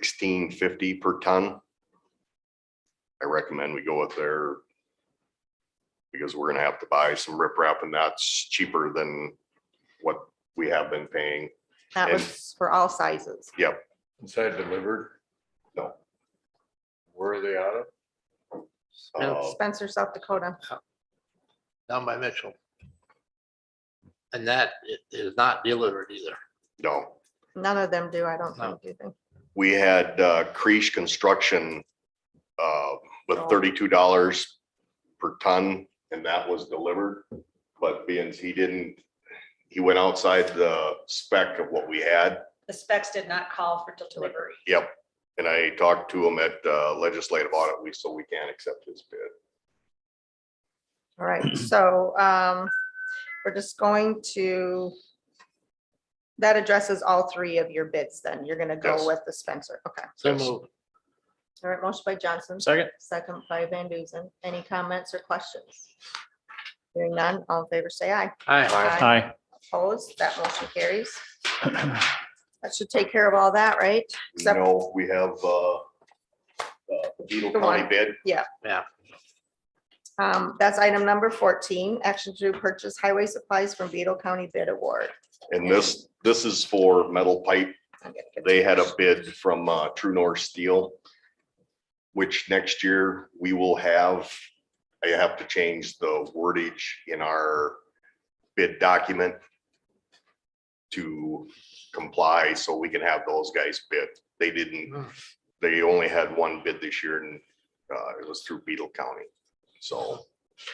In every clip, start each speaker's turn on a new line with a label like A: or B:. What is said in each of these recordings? A: sixteen fifty per ton. I recommend we go with their because we're gonna have to buy some riprap and that's cheaper than what we have been paying.
B: That
A: And-
B: was for all sizes.
C: Is that delivered?
A: No.
C: Where are they out of?
A: Uh,
B: Spencer, South Dakota.
D: down by Mitchell. And that i- is not delivered either.
A: No,
B: None of them do, I don't
D: No.
B: think. do they?
A: we had uh, Creech Construction uh, with
B: Oh.
A: thirty-two dollars per ton, and that was delivered. But being he didn't, he went outside the spec of what we had.
E: The specs did not call for delivery.
A: Yep. And I talked to him at uh, legislative audit, we, so we can't accept his bid.
B: All right, so um, we're just going to, that addresses all three of your bids then. You're gonna
A: Yes.
B: go with the Spencer. Okay.
D: So
A: Yes.
D: moved.
B: All right, motion by Johnson.
D: Second.
B: Second by Van Duzen. Any comments or questions? Hearing none, all in favor, say aye.
D: Aye.
F: Hi.
B: Opposed, that motion carries. That should take care of all that, right?
A: We
B: Except-
A: know we have uh, uh, the Beetle
B: The
A: County
B: one.
A: bid.
B: Um, that's item number fourteen, action to purchase highway supplies from Beetle County bid award.
A: And this, this is for metal pipe
B: I'm gonna get
A: they
B: to
A: had a
B: this.
A: bid from uh, True North Steel, which next year we will have, I have to change the wordage in our bid document to comply, so we can have those guys bid. They didn't, they only had one bid this year and uh, it was through Beetle County. So,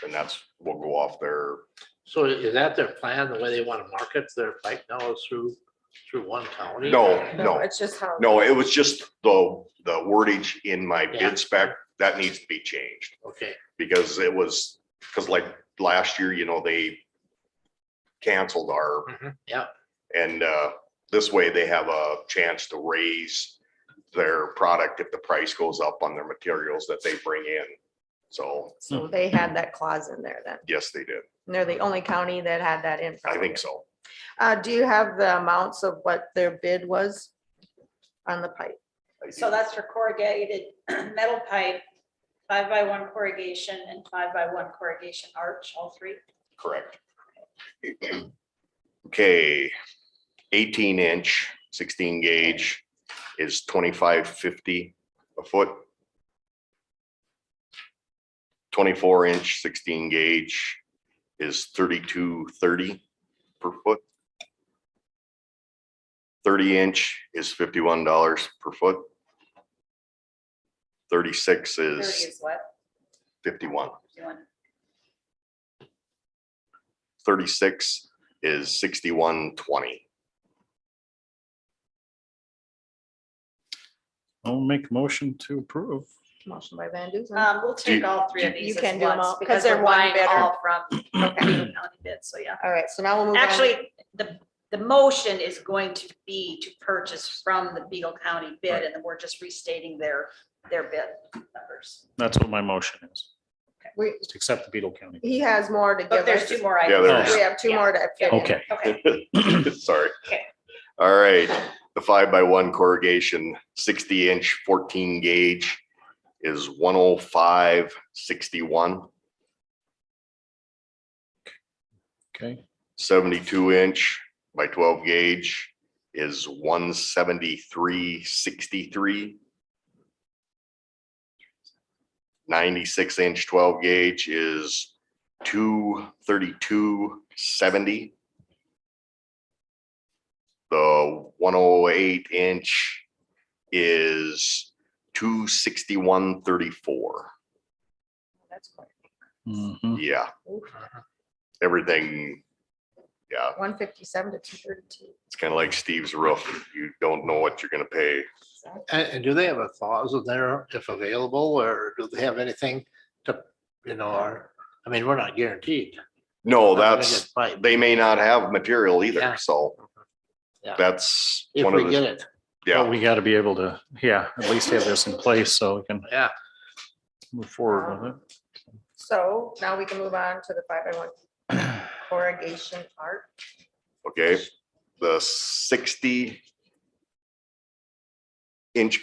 A: and that's, we'll go off there.
D: So is that their plan, the way they want to market their pipe now is through, through one county?
A: No,
B: No,
A: no,
B: it's just how.
A: no, it was just the, the wordage in my
D: Yeah.
A: bid spec, that needs to be changed.
D: Okay,
A: because it was, because like last year, you know, they canceled our,
D: Mhm. yeah,
A: and uh, this way they have a chance to raise their product if the price goes up on their materials that they bring in. So,
B: So they had that clause in there then.
A: yes, they did.
B: And they're the only county that had that in.
A: I think so.
B: Uh, do you have the amounts of what their bid was on the pipe?
A: I
E: So
A: do.
E: that's for corrugated metal pipe, five by one corrugation and five by one corrugation arch, all three.
A: Correct. Okay, eighteen inch, sixteen gauge is twenty-five fifty a foot. Twenty-four inch, sixteen gauge is thirty-two thirty per foot. Thirty inch is fifty-one dollars per foot. Thirty-six
E: Thirty
A: is
E: is what?
A: fifty-one.
E: Doing-
A: 36 is 6120.
F: I'll make motion to approve.
B: Motion by Van Duzen.
E: Um, we'll take all three of
B: Mm-hmm. you
E: these
B: can
E: at
B: do 'em
E: once
B: all, 'cause
E: because
B: they're
E: they're
B: one
E: buying
B: bidder.
E: all from Beaver County bid, so yeah.
B: All right, so now we'll move on.
E: Actually, the, the motion is going to be to purchase from the Beagle County bid and then we're just restating their, their bid numbers.
F: That's what my motion is,
B: We-
F: is to accept the Beetle County.
B: he has more to
E: But
B: give
E: Oh, there's
B: us.
E: two more
A: Yeah,
E: items.
A: there's-
B: We have two
E: Yeah.
B: more to. fit in.
F: Okay,
E: Okay,
A: Sorry.
E: Okay.
A: All right, the five by one corrugation, 60 inch, 14 gauge is 105, 61.
F: okay.
A: 72 inch by 12 gauge is 173, 63. 96 inch 12 gauge is 232, 70. The 108 inch is 261, 34.
B: That's quite-
D: Hmm.
F: Mhm.
A: Yeah,
D: Uh-huh.
A: everything, yeah,
B: One fifty-seven to two thirty-two.
A: It's kind of like Steve's roof. You don't know what you're gonna pay.
D: and, and do they have a clause in there if available, or do they have anything to, you know, or, I mean, we're not guaranteed.
A: No,
D: We're not gonna
A: that's,
D: get pipe.
A: they may not have material
D: Yeah.
A: either, so.
D: Yeah.
A: That's
D: If
A: one of
D: we
A: the,
D: get it,
F: But
A: yeah,
F: we gotta be able to, yeah, at least have this in place so we can
D: yeah,
F: move forward with it.
B: Um, So now we can move on to the five by one corrugation art.
A: okay. The sixty inch